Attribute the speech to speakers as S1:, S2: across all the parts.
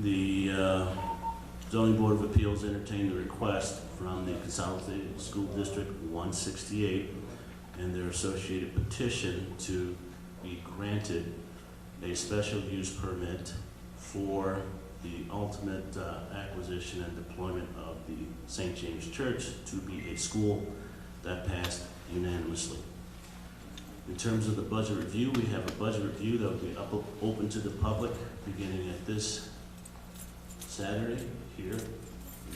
S1: The uh, zoning board of appeals entertained the request from the Consolidated School District 168 and their associated petition to be granted a special use permit for the ultimate uh, acquisition and deployment of the St. James Church to be a school that passed unanimously. In terms of the budget review, we have a budget review that will be up, open to the public beginning at this Saturday here,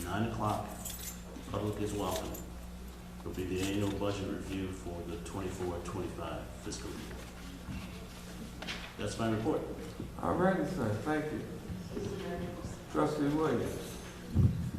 S1: nine o'clock. Public is welcome. It'll be the annual budget review for the 24-25 fiscal year. That's my report.
S2: All righty, sir, thank you. Trustee Williams.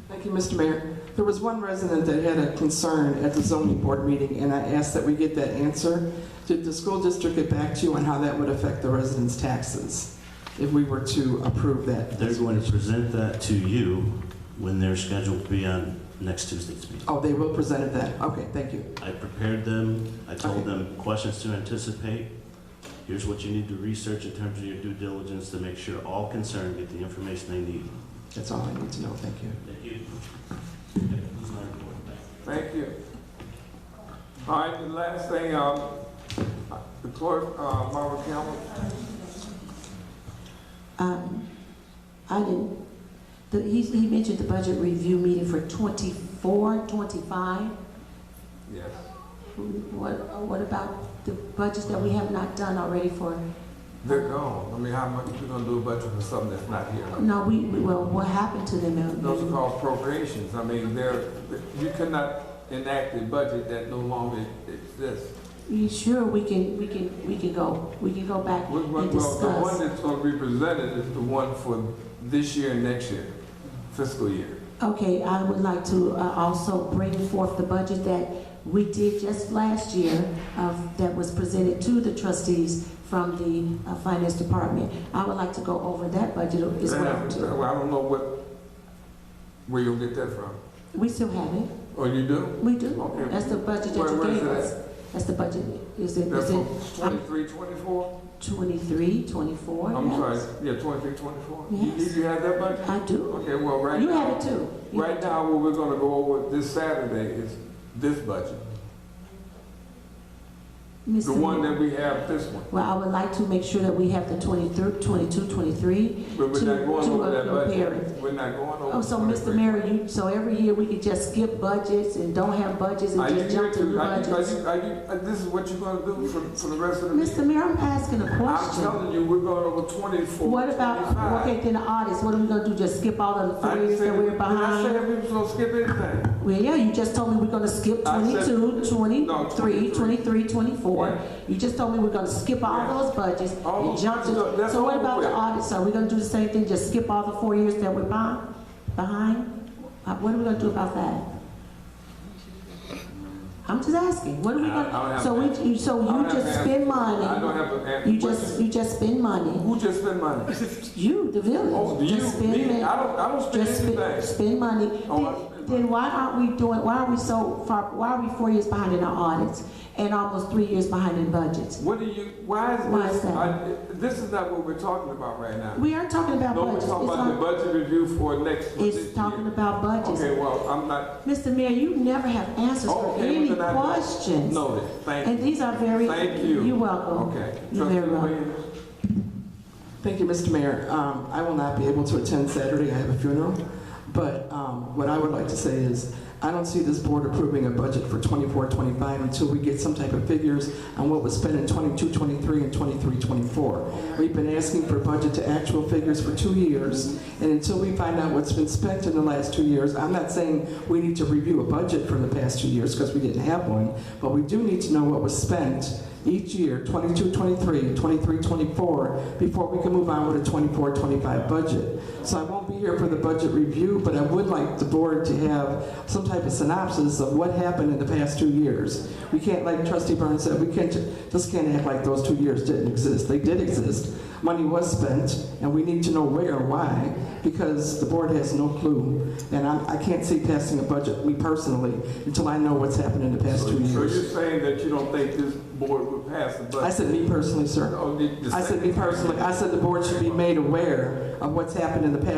S3: Thank you, Mr. Mayor. There was one resident that had a concern at the zoning board meeting, and I asked that we get that answer. Did the school district get back to you on how that would affect the residents' taxes if we were to approve that?
S1: They're going to present that to you when they're scheduled to be on next Tuesday's meeting.
S3: Oh, they will present it then. Okay, thank you.
S1: I prepared them, I told
S3: Okay.
S1: them questions to anticipate. Here's what you need to research in terms of your due diligence to make sure all concerned get the information they need.
S3: That's all I need to know. Thank you.
S1: Thank you.
S2: Thank you. All right, the last thing, um, the clerk, uh, Marva Campbell.
S4: Um, I didn't, the, he, he mentioned the budget review meeting for twenty-four, twenty-five.
S2: Yes.
S4: What, what about the budgets that we have not done already for,
S2: They're gone. I mean, how much you gonna do a budget for something that's not here?
S4: no, we, we- well, what happened to them? uh,
S2: Those are called appropriations. I mean, they're, you cannot enact a budget that no longer exists.
S4: You sure we can, we can, we can go, we can go back
S2: Well, well,
S4: and
S2: well, the one
S4: discuss?
S2: that's gonna be presented is the one for this year and next year, fiscal year.
S4: Okay, I would like to, uh, also bring forth the budget that we did just last year, uh, that was presented to the trustees from the, uh, finance department. I would like to go over that budget as well. too.
S2: Well, I don't know what, where you'll get that from.
S4: We still have it.
S2: Oh, you do?
S4: We do.
S2: Okay.
S4: That's the budget that
S2: Where-
S4: you
S2: where is
S4: gave
S2: it
S4: us. That's the budget. Is it,
S2: That's
S4: is it
S2: for twenty-three, twenty-four?
S4: 23, 24?
S2: I'm sorry,
S4: Yes.
S2: yeah, twenty-three, twenty-four? You,
S4: Yes.
S2: you have that budget?
S4: I do.
S2: Okay, well, right
S4: You have
S2: now,
S4: it too. You have
S2: right
S4: it
S2: now, what we're gonna go over this Saturday is this budget.
S4: too. Mr.
S2: The one
S4: Moore.
S2: that we have, this one.
S4: Well, I would like to make sure that we have the 23, 22, 23.
S2: But we're
S4: To-
S2: not going
S4: to
S2: over that
S4: compare
S2: budget. We're not going over.
S4: Oh, so
S2: 23.
S4: Mr. Mayor, you, so every year we could just skip budgets and don't have budgets
S2: Are
S4: and
S2: you
S4: just
S2: here
S4: jump to new
S2: to, are you, are
S4: budgets?
S2: you, are you, uh, this is what you're gonna do for, for the rest of the meeting?
S4: Mr. Mayor, I'm asking a
S2: I'm
S4: question.
S2: telling you, we're going over twenty-four,
S4: What about, okay,
S2: twenty-five.
S4: then the audits, what are we gonna do? Just skip all of the
S2: I didn't
S4: three years
S2: say,
S4: that we're
S2: did I
S4: behind?
S2: say that we was gonna skip anything?
S4: Well, yeah, you just told me we're gonna skip
S2: I said-
S4: 22,
S2: No,
S4: 23,
S2: 23.
S4: 23, 24.
S2: Yeah.
S4: You just told me we're gonna skip
S2: Yeah.
S4: all those budgets
S2: All
S4: and
S2: those-
S4: jump
S2: no,
S4: to,
S2: that's
S4: so what
S2: over
S4: about the
S2: with.
S4: audits? Are we gonna do the same thing, just skip all the four years that we're behind? Behind? Uh, What are we gonna do about that? I'm just asking, what are we
S1: I- I
S2: don't
S4: gonna,
S2: have
S4: so
S2: an
S4: we, you- so
S2: I don't
S4: you
S2: have
S4: just
S2: an
S4: spend
S2: I don't
S4: money,
S2: have an answer.
S4: you just, you just spend money,
S2: Who just spend money?
S4: you, the
S2: Oh, do
S4: village,
S2: you,
S4: just spend
S2: me,
S4: money.
S2: I don't, I don't spend
S4: Just spend,
S2: anything.
S4: spend money.
S2: Oh, I
S4: Then-
S2: spend money.
S4: Then why aren't we doing, why are we so far, why are we four years behind in our audits and almost three years behind in budgets?
S2: What do you, why
S4: Why
S2: is
S4: is
S2: this,
S4: that?
S2: I, this is not what we're talking about right now.
S4: We aren't talking about
S2: No, we're
S4: budgets. It's
S2: talking about the
S4: not-
S2: budget review for next, for this year.
S4: It's talking about budgets.
S2: Okay, well, I'm not,
S4: Mr. Mayor, you never have answers for
S2: Okay,
S4: any
S2: well, then I-
S4: questions.
S2: noted, thank you.
S4: And these are very.
S2: Thank you.
S4: You're welcome.
S2: Okay.
S4: You're very
S2: Trustee
S4: welcome.
S2: Williams?
S3: Thank you, Mr. Mayor. Um, I will not be able to attend Saturday, I have a funeral. But um, what I would like to say is, I don't see this board approving a budget for 24, 25 until we get some type of figures on what was spent in 22, 23, and 23, 24. We've been asking for budget to actual figures for two years, and until we find out what's been spent in the last two years, I'm not saying we need to review a budget for the past two years, because we didn't have one, but we do need to know what was spent each year, 22, 23, 23, 24, before we can move on with a 24, 25 budget. So I won't be here for the budget review, but I would like the board to have some type of synopsis of what happened in the past two years. We can't, like trustee Burns said, we can't, just can't act like those two years didn't exist. They did exist. Money was spent, and we need to know where and why, because the board has no clue. And I, I can't see passing a budget, me personally, until I know what's happened in the past
S2: So
S3: two
S2: you're
S3: years.
S2: saying that you don't think this board would pass the
S3: I
S2: budget?
S3: said me personally, sir.
S2: Oh, the- the
S3: I said, me
S2: second-
S3: personally, I said the board should be made aware of what's happened in the past